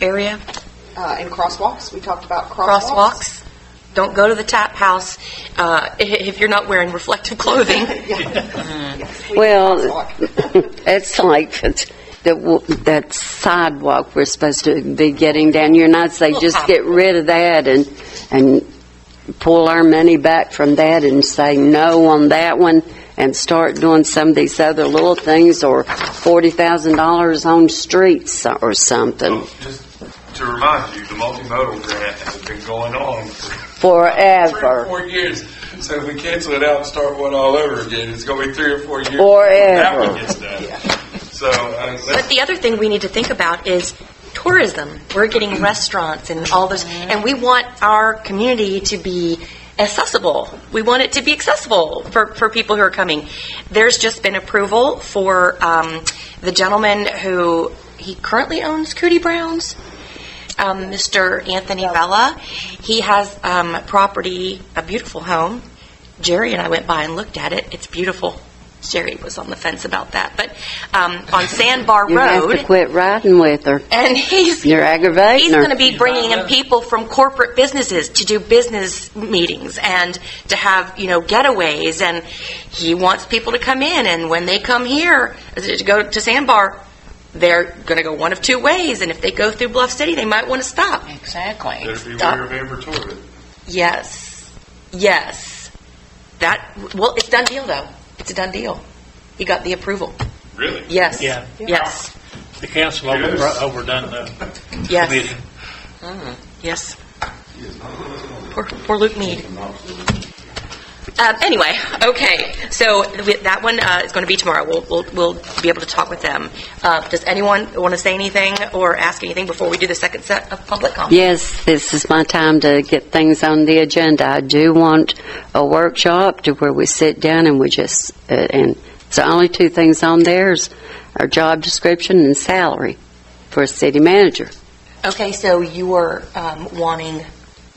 area, Uh, and crosswalks, we talked about crosswalks. crosswalks. Don't go to the tap house uh, i- if you're not wearing reflective clothing. Crosswalks. Well, it's like that w- that sidewalk we're supposed to be getting down here, and I'd say just get rid of that and, and pull our money back from that and say no on that one and start doing some of these other little things or $40,000 on streets or something Well, Just to remind you, the multimodal grant has been going on for three or forever. four years. So if we cancel it out and start one all over again, it's going to be three or four years. before That Forever. one gets done. So, uh, But that's- the other thing we need to think about is tourism. We're getting restaurants and all those, and we want our community to be accessible. We want it to be accessible for, for people who are coming. There's just been approval for um, the gentleman who, he currently owns Cootie Brown's, um, Mr. Anthony Vella. He has um, property, a beautiful home. Jerry and I went by and looked at it. It's beautiful. Jerry was on the fence about that, but um, on Sandbar You have to Road, quit riding with her. and he's You're aggravating he's her. going to be bringing in people from corporate businesses to do business meetings and to have you know getaways, and he wants people to come in, and when they come here to go to Sandbar. They're going to go one of two ways, and if they go through Bluff City, they might want to stop. Exactly. better beware Stop. of Amber Torbett. Yes. Yes. That, well, it's done deal, though. It's a done deal. He got the approval. Really? Yes. Yeah. Yes. The council It is. over- overdone the Yes. committee. Yes. Poor, poor Luke Mead. Um, anyway, okay. So th- that one uh, is going to be tomorrow. We'll, we'll, we'll be able to talk with them. Uh, does anyone want to say anything or ask anything before we do the second set of public comments? Yes, this is my time to get things on the agenda. I do want a workshop to where we sit down and we just, uh, and it's the only two things on there is our job description and salary for a city manager. Okay, so you are um, wanting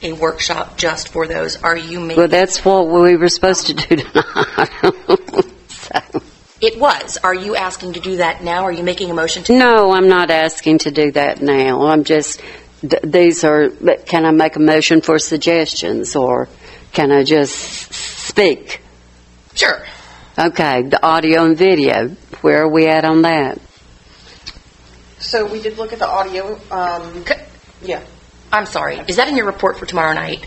a workshop just for those. Are you making? Well, that's what we were supposed to do tonight. So, It was. Are you asking to do that now? Are you making a motion to? No, I'm not asking to do that now. I'm just, th- these are, but can I make a motion for suggestions or can I just speak? Sure. Okay, the audio and video, where are we at on that? So we did look at the audio, um, C- yeah. I'm sorry. Is that in your report for tomorrow night?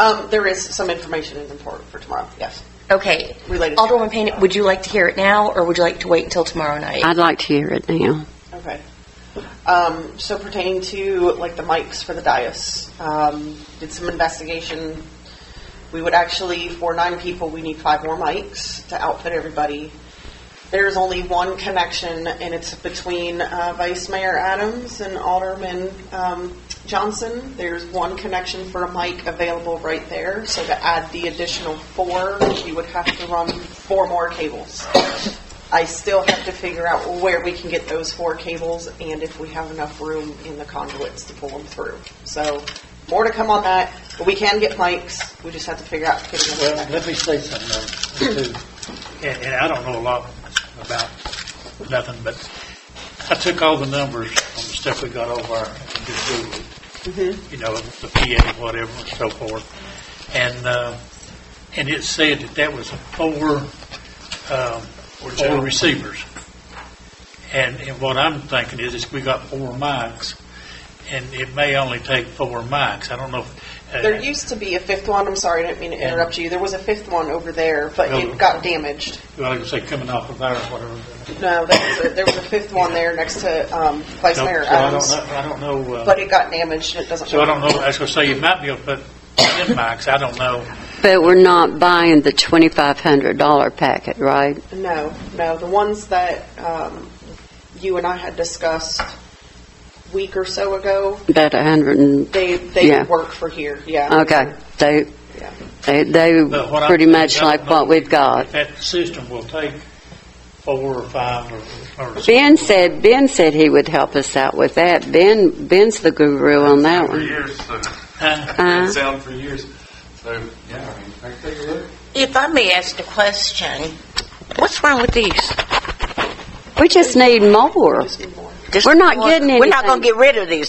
Um, there is some information in the report for tomorrow, yes. Okay. Related. Alderwoman Payne, would you like to hear it now, or would you like to wait until tomorrow night? I'd like to hear it now. Okay. Um, so pertaining to like the mics for the dais, um, did some investigation. We would actually, for nine people, we need five more mics to outfit everybody. There's only one connection, and it's between uh, Vice Mayor Adams and Alderman um, Johnson. There's one connection for a mic available right there. So to add the additional four, we would have to run four more cables. I still have to figure out where we can get those four cables and if we have enough room in the conduits to pull them through. So more to come on that, but we can get mics. We just have to figure out. getting them Well, connected. let me say something, though, too. And, and I don't know a lot about nothing, but I took all the numbers on the stuff we got over and just Googled it. You know, the PA, and whatever, and so forth. And, uh, and it said that that was four, um, four receivers. And, and what I'm thinking is, is we got four mics, and it may only take four mics. I don't know. if- uh, There used to be a fifth one. I'm sorry, I didn't mean to interrupt you. There was a fifth one over there, but it got damaged. Well, like I say, coming off of there, whatever. No, there was a, there was a fifth one there next to um, Vice So Mayor so I don't Adams, know, I don't know, but uh, it got damaged. and It doesn't. so I don't know, I was gonna say, you might be able to put ten mics, I don't know. But we're not buying the $2,500 packet, right? No, no. The ones that um, you and I had discussed a week or so ago, About 100 and, they they Yeah. work for here. Yeah. okay. They, Yeah. they, they But what I'm pretty saying, much I don't like know what we've got. if That system will take four or five or, or. Ben said, Ben said he would help us out with that. Ben, Ben's the guru on that For one. years, so, Huh? Uh, sound for years. So, yeah, I mean, I can take a look. If I may ask the question, what's wrong with these? We just need more. Just need more. Just We're not one- getting We're not anything. going to get rid of these.